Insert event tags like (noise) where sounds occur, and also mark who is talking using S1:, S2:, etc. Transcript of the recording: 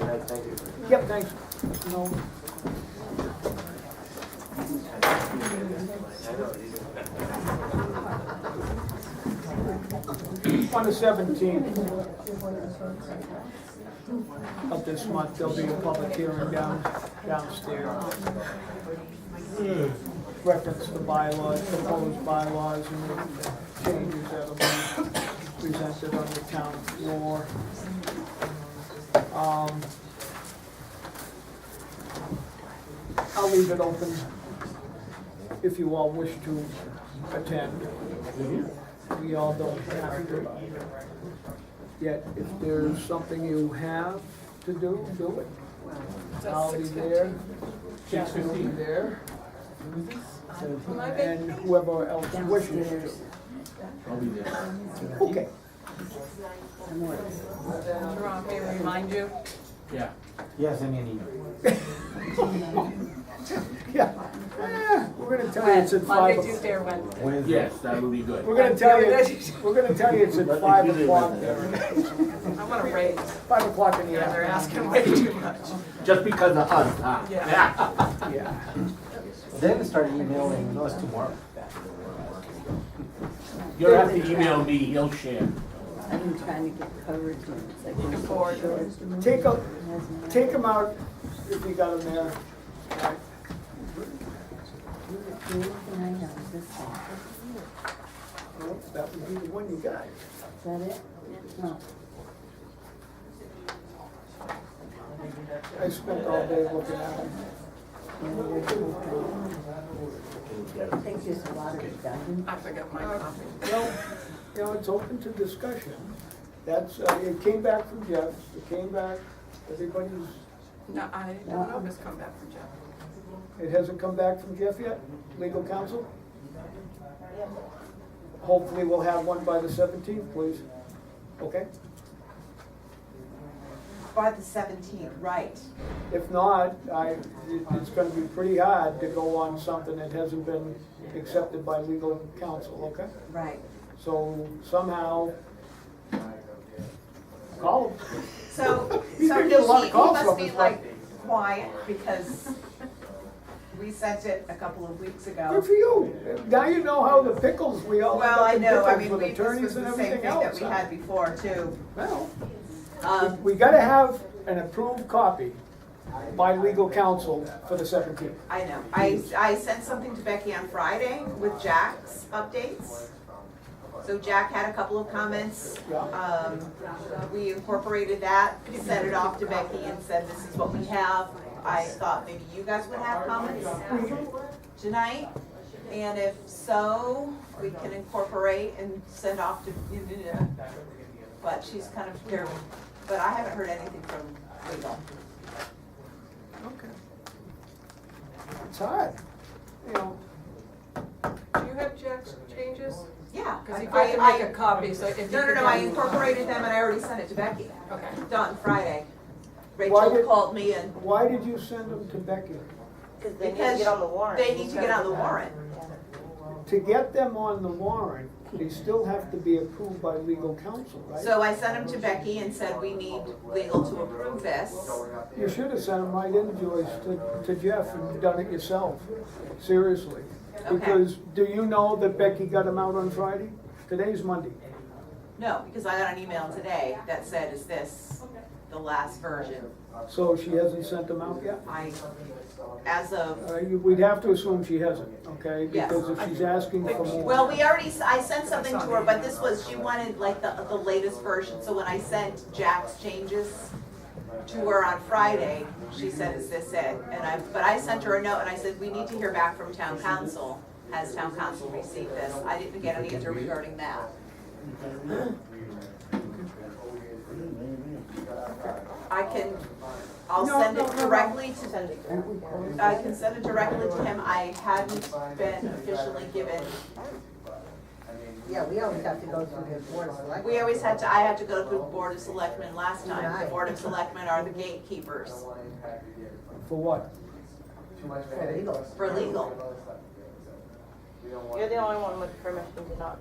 S1: Nice, thank you.
S2: Yep, thanks. No. On the seventeenth of this month, there'll be a public hearing down, downstairs. Reference the bylaws, proposed bylaws and the changes that will be presented on the town floor. Um, I'll leave it open if you all wish to attend. We all don't have to. Yet, if there's something you have to do, do it. I'll be there. Jack will be there, and whoever else wishes to.
S3: I'll be there.
S2: Okay,
S4: Jerome, may I remind you?
S3: Yeah.
S1: Yes, I mean, you-
S2: yeah. Eh, We're gonna tell you it's at five.
S4: Monday,
S2: o'clock.
S4: Tuesday, or Wednesday?
S1: when is it?
S3: Yes, that would be good.
S2: We're gonna tell you, we're gonna tell you it's at five o'clock,
S4: I want to raise,
S2: five o'clock in the
S4: yeah, they're
S2: afternoon.
S4: asking way too much.
S3: Just because of us, huh?
S4: Yeah.
S2: Yeah.
S1: They're gonna start emailing us tomorrow.
S3: You'll have to email me, he'll share.
S5: I've been trying to get coverage and it's like.
S4: Looking forward to it.
S2: Take a, take them out if you got them there.
S5: Nine dollars, this thing.
S2: Well, That would be the one you got.
S5: Is that it? No.
S2: I spent all day looking at them.
S5: I think there's a lot of done.
S4: I forgot my copy.
S2: Well, you know, it's open to discussion. That's, uh, it came back from Jeff, it came back, everybody's,
S4: No, I don't know if it's come back from Jeff.
S2: it hasn't come back from Jeff yet, legal counsel? Hopefully we'll have one by the seventeenth, please. Okay?
S6: By the seventeenth, right.
S2: If not, I, it- it's gonna be pretty hard to go on something that hasn't been accepted by legal counsel, okay?
S6: Right.
S2: So somehow, call them. (laughs)
S6: So,
S2: He's
S6: so
S2: gonna
S6: he,
S2: get a lot of
S6: he
S2: calls from
S6: must be
S2: this one.
S6: like quiet because we sent it a couple of weeks
S2: Good
S6: ago.
S2: for you. Now you know how the pickles, we all end
S6: Well,
S2: up
S6: I
S2: in
S6: know, I
S2: pickles
S6: mean,
S2: with
S6: we, this was
S2: attorneys and
S6: the same thing
S2: everything
S6: that
S2: else.
S6: we had before too.
S2: Well,
S6: Um,
S2: we gotta have an approved copy by legal counsel for the seventeenth.
S6: I know, I, I sent something to Becky on Friday with Jack's updates. So Jack had a couple of comments.
S2: Yeah.
S6: Um, we incorporated that, sent it off to Becky and said, this is what we have. I thought maybe you guys would have comments tonight. And if so, we can incorporate and send off to, but she's kind of here. But I haven't heard anything from legal.
S2: Okay. It's hard, you know.
S4: Do you have Jack's changes?
S6: Yeah.
S4: Because he
S6: I-
S4: tried to
S6: I-
S4: make a copy, so if you.
S6: No, no,
S4: could
S6: no, I
S4: get-
S6: incorporated them and I already sent it to Becky,
S4: Okay.
S6: done Friday.
S2: Why
S6: Rachel
S2: did-
S6: called me and,
S2: Why did you send them to Becky?
S5: Because
S6: they need to get on the warrant. they need to get on the warrant.
S2: To get them on the warrant, they still have to be approved by legal counsel, right?
S6: So I sent them to Becky and said, we need legal to approve this.
S2: You should have sent them right in, Joyce, to, to Jeff and done it yourself, seriously.
S6: Okay.
S2: Because, do you know that Becky got them out on Friday? Today's Monday.
S6: No, because I got an email today that said, is this the last version?
S2: So she hasn't sent them out yet?
S6: I, as of,
S2: Uh, you- we'd have to assume she hasn't, okay?
S6: Yes.
S2: Because if she's asking for more.
S6: well, we already, s- I sent something to her, but this was, she wanted like the, the latest version. So when I sent Jack's changes to her on Friday, she said, is this it? And I, but I sent her a note and I said, we need to hear back from town council. Has town council received this? I didn't get an answer regarding that. I can, I'll
S2: No,
S6: send
S2: no,
S6: it
S2: no, no.
S6: directly to, I can send it directly to him. I hadn't been officially given,
S7: Yeah, we always have to go through the board of selectmen.
S6: we always had to, I had to go to the board of selectmen last time. The board of selectmen are the gatekeepers
S2: For what?
S7: For legals.
S6: for legal.
S8: You're the only one with permission to not